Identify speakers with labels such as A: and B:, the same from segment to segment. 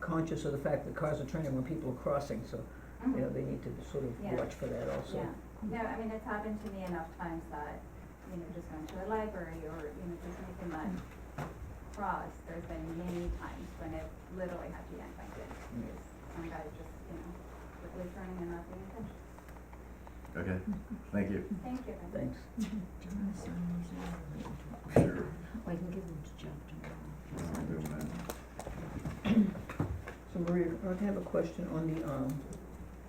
A: conscious of the fact that cars are turning when people are crossing, so, you know, they need to sort
B: Yeah.
A: of watch for that also.
B: Yeah, no, I mean, it's happened to me enough times that, you know, just going to a library or, you know, just making that cross, there's been many times when it literally had to yank my kid. because Some guy just, you know, quickly turning and not paying attention.
C: Okay, thank you.
B: Thank you. Evan.
A: Thanks.
D: Do you wanna sign these now or wait until,
C: Sure.
D: oh, I can give them to Jeff tomorrow.
C: I'm doing that.
A: So Maria, I have a question on the, um,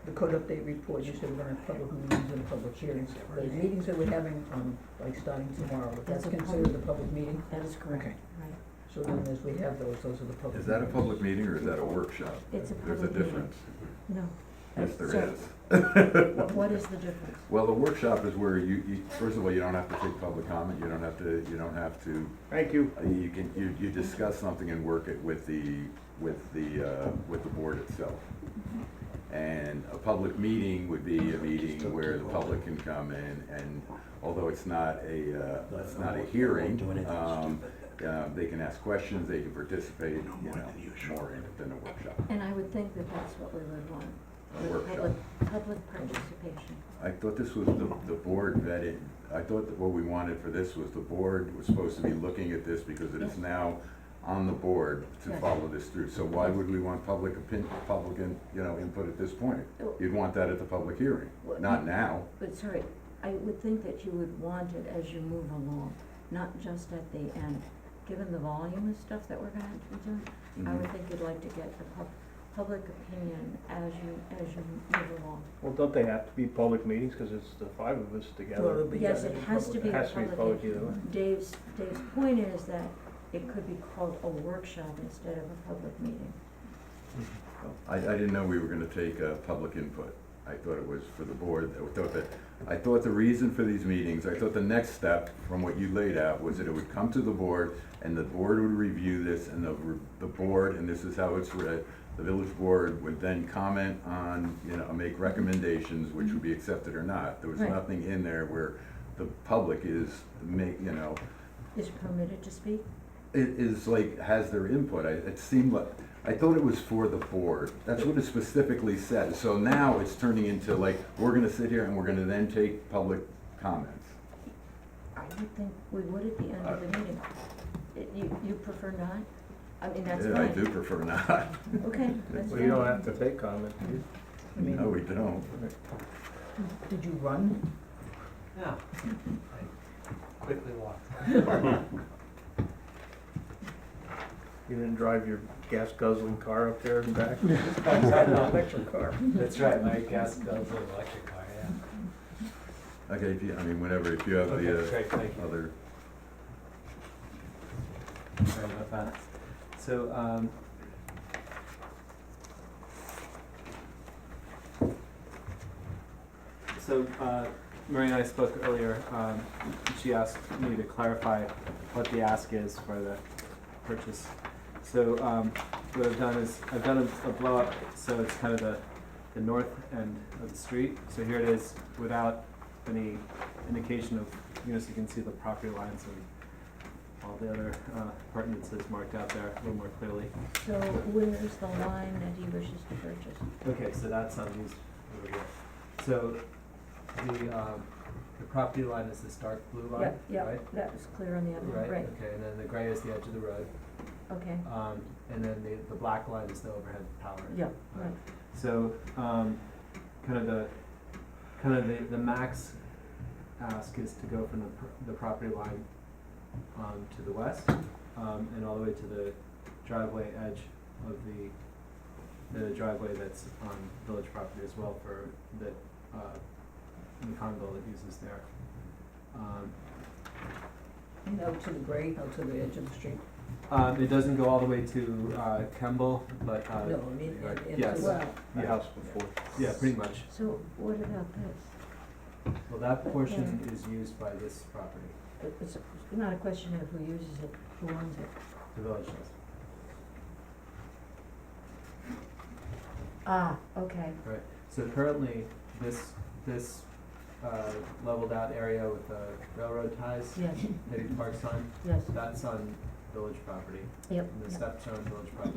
A: the code update report, you said we're gonna have public meetings and public hearings. The meetings that we're having, um, like starting tomorrow, if that's
D: That's a
A: considered a public meeting,
D: That is
A: Okay.
D: correct, right.
A: so then as we have those, those are the public.
C: Is that a
A: meetings.
C: public meeting or is that a workshop?
D: It's a
C: There's a
D: public meeting.
C: difference.
D: No,
C: Yes, there
D: So-
C: is.
D: Wh- what is the difference?
C: Well, the workshop is where you, you, first of all, you don't have to take public comment, you don't have to, you don't have to,
E: Thank you.
C: uh, you can, you, you discuss something and work it with the, with the, uh, with the board itself. And a public meeting would be a meeting where the public can come in and, although it's not a, uh, it's not a hearing, um, uh, they can ask questions, they can participate, you know, more in it than a workshop.
D: And I would think that that's what we would want,
C: A
D: with
C: workshop.
D: public, public participation.
C: I thought this was the, the board vetted, I thought that what we wanted for this was the board was supposed to be looking at this because it is now on the board to
D: Yes.
C: follow this through. So why would we want public opinion, public, in- you know, input at this point?
D: Oh.
C: You'd want that at the public hearing,
D: Well,
C: not now.
D: But sorry, I would think that you would want it as you move along, not just at the end. Given the volume of stuff that we're gonna have to be doing,
C: Mm-hmm.
D: I would think you'd like to get the pub- public opinion as you, as you move along.
E: Well, don't they have to be public meetings, cause it's the five of
A: Well,
E: us
A: it'll
E: together?
A: be- yeah,
D: Yes, it
A: it'll
D: has to
A: public-
D: be
E: It
D: a
E: has to be
D: public,
E: public either way.
D: Dave's, Dave's point is that it could be called a workshop instead of a public meeting.
C: I, I didn't know we were gonna take, uh, public input. I thought it was for the board, I thought that, I thought the reason for these meetings, I thought the next step from what you laid out was that it would come to the board and the board would review this and the, the board, and this is how it's read, the village board would then comment on, you know, make recommendations, which would be accepted or not. There was
D: Right.
C: nothing in there where the public is make, you know,
D: Is permitted to speak?
C: it is like, has their input. I, it seemed like, I thought it was for the board. That's what it specifically said. So now it's turning into like, we're gonna sit here and we're gonna then take public comments.
D: I would think we would at the end of the meeting. It- You, you prefer not? I mean, that's
C: Yeah,
D: fine.
C: I do prefer not.
D: Okay, that's fine.
E: Well, you don't have to take comment, do you?
A: I mean,
C: No, we don't.
A: Did you run?
F: No, I quickly walked.
E: You didn't drive your gas guzzling car up there and back?
A: Electric car.
F: That's right, my gas goes with electric car, yeah.
C: Okay, if you, I mean, whenever, if you have
F: Okay,
C: the
F: great, thank
C: uh,
F: you.
C: other,
F: Sorry about that. So, um. So, uh, Maria and I spoke earlier, um, she asked me to clarify what the ask is for the purchase. So, um, what I've done is, I've done a, a blow up, so it's kind of the, the north end of the street. So here it is, without any indication of, you know, so you can see the property lines and all the other uh, appurtenances marked out there a little more clearly.
D: So where is the line that he wishes to purchase?
F: Okay, so that's on these over here. So the, um, the property line is this dark blue line, right?
D: Yep, yep, that was clear on the other, one. right,
F: okay, and then the gray is the edge of the road,
D: okay,
F: um, and then the, the black line is the overhead power.
D: yeah, right.
F: So, um, kind of the, kind of the, the max ask is to go from the, pr- the property line, um, to the west, um, and all the way to the driveway edge of the, the driveway that's on village property as well for, that, uh, the condo that uses there. Um,
A: And out to the gray, out to the edge of the street.
F: um, it doesn't go all the way to, uh, Kemble, but, uh,
A: No, I mean, and- and to-
F: Yes.
A: well,
E: The house before.
F: yeah, pretty much.
D: So what about this?
F: Well, that portion is used by this property,
D: It- It's not a question of who uses it, who owns it.
F: the village does.
D: Ah, okay,
F: So currently, this, this, uh, leveled out area with the railroad ties,
D: yes,
F: Hidden Park sign,
D: yes,
F: that's on village property.
D: yep,
F: And the
D: yep.
F: steps are on village property.